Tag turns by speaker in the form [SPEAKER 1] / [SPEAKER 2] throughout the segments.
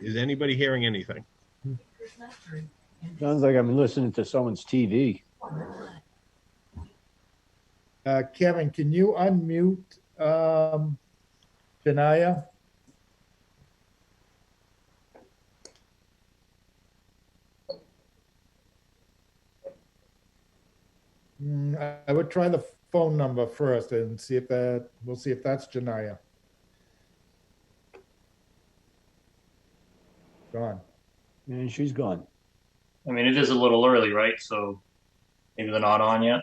[SPEAKER 1] Is anybody hearing anything?
[SPEAKER 2] Sounds like I'm listening to someone's TV.
[SPEAKER 3] Uh, Kevin, can you unmute, um, Janaya? Hmm, I- I would try the phone number first and see if that, we'll see if that's Janaya. Gone.
[SPEAKER 2] And she's gone.
[SPEAKER 4] I mean, it is a little early, right? So maybe they're not on yet.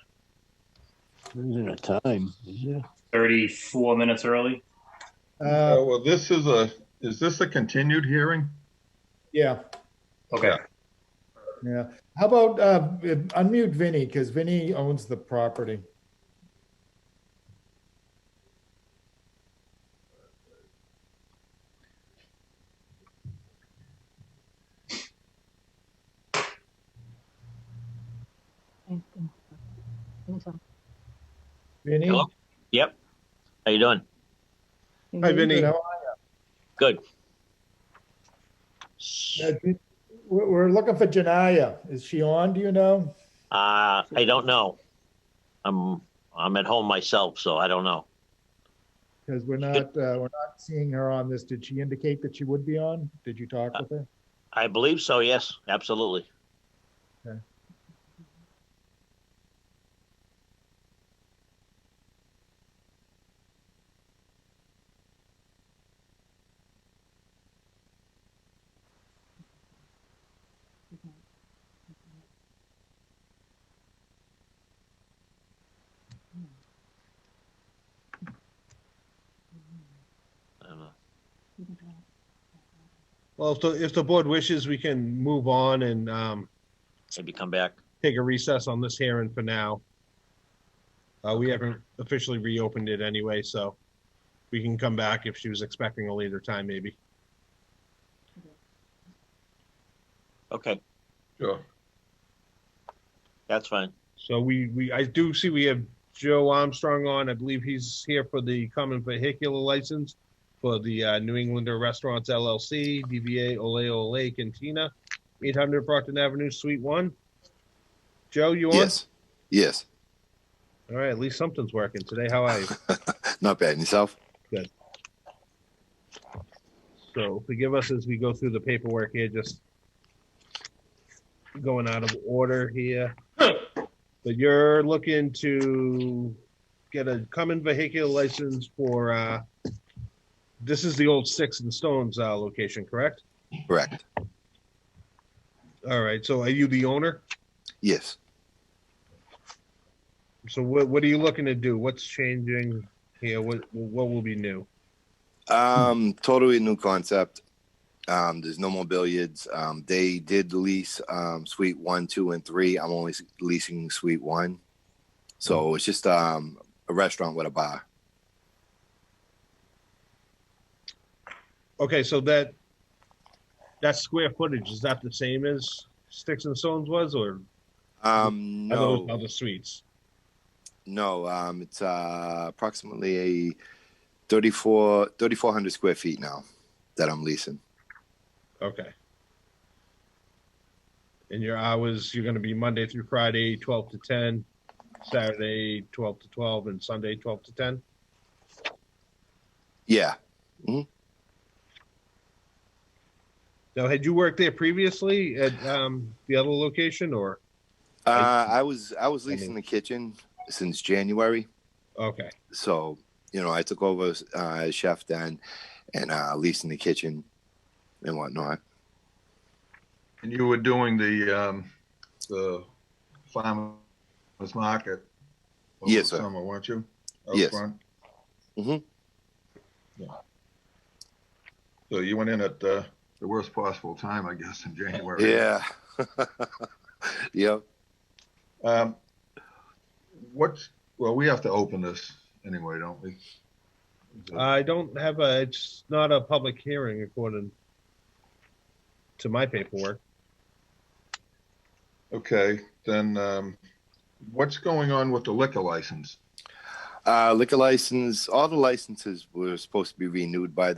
[SPEAKER 2] Isn't it time? Yeah.
[SPEAKER 4] 34 minutes early.
[SPEAKER 3] Uh,
[SPEAKER 5] Uh, well, this is a, is this a continued hearing?
[SPEAKER 3] yeah,
[SPEAKER 4] Okay.
[SPEAKER 5] Yeah.
[SPEAKER 3] yeah. How about, uh, unmute Vinny, because Vinny owns the property.
[SPEAKER 6] I think so. I think so.
[SPEAKER 3] Vinny?
[SPEAKER 7] Hello? How you doing?
[SPEAKER 1] Hi,
[SPEAKER 6] Maybe.
[SPEAKER 1] Vinny.
[SPEAKER 3] Good, how
[SPEAKER 7] Good.
[SPEAKER 3] Uh, Jan- We're we're looking for Janaya. Is she on? Do you know?
[SPEAKER 7] Uh, I don't know. I'm I'm at home myself, so I don't know.
[SPEAKER 3] Because we're not, uh, we're not seeing her on this. Did she indicate that she would be on? Did you talk with her?
[SPEAKER 7] I believe so. Yes, absolutely. I don't know.
[SPEAKER 1] Well, if the, if the board wishes, we can move on and um,
[SPEAKER 7] Maybe come back.
[SPEAKER 1] take a recess on this hearing for now. Uh, We haven't officially reopened it anyway, so we can come back if she was expecting a later time, maybe.
[SPEAKER 7] Okay,
[SPEAKER 5] Sure.
[SPEAKER 7] that's fine.
[SPEAKER 1] So we, we, I do see we have Joe Armstrong on. I believe he's here for the common vehicular license for the uh, New Englander Restaurants LLC, DBA Ole Ole Cantina, 800 Brockton Avenue, Suite 1. Joe, you on?
[SPEAKER 8] Yes. Yes.
[SPEAKER 1] All right, at least something's working today. How are you?
[SPEAKER 8] Not bad. And yourself?
[SPEAKER 1] So forgive us as we go through the paperwork here, just going out of order here. But you're looking to get a common vehicular license for, uh, this is the old Six and Stones, uh, location, correct?
[SPEAKER 8] Correct.
[SPEAKER 1] All right, so are you the owner?
[SPEAKER 8] Yes.
[SPEAKER 1] So what, what are you looking to do? What's changing here? What, what will be new?
[SPEAKER 8] Um, totally new concept. Um, there's no more billiards. Um, they did lease um, suite one, two, and three. I'm only leasing suite one. So it's just um, a restaurant with a bar.
[SPEAKER 1] Okay, so that, that square footage, is that the same as Six and Stones was or
[SPEAKER 8] Um,
[SPEAKER 1] are those
[SPEAKER 8] no,
[SPEAKER 1] other suites?
[SPEAKER 8] no. Um, it's uh, approximately a 34 3,400 square feet now that I'm leasing.
[SPEAKER 1] Okay. And your hours, you're gonna be Monday through Friday, twelve to ten, Saturday, twelve to twelve, and Sunday, twelve to ten?
[SPEAKER 8] Yeah.
[SPEAKER 1] Now, had you worked there previously at, um, the other location or,
[SPEAKER 8] Uh, I was I was leasing
[SPEAKER 1] mean-
[SPEAKER 8] the kitchen since January.
[SPEAKER 1] okay,
[SPEAKER 8] so you know i took over uh, as chef then and uh leasing the kitchen and whatnot
[SPEAKER 5] And you were doing the, um, the farmer's market? over
[SPEAKER 8] Yes,
[SPEAKER 5] the
[SPEAKER 8] sir.
[SPEAKER 5] Summer, weren't you? Out
[SPEAKER 8] Yes. Mm-hmm.
[SPEAKER 5] front?
[SPEAKER 8] Mhm.
[SPEAKER 5] Yeah. So you went in at, uh, the worst possible time, I guess, in January.
[SPEAKER 8] yeah yep
[SPEAKER 5] Um, what's, well, we have to open this anyway, don't we?
[SPEAKER 1] I don't have a, it's not a public hearing according to my paperwork.
[SPEAKER 5] Okay, then, um, what's going on with the liquor license?
[SPEAKER 8] uh liquor license all the licenses were supposed to be renewed by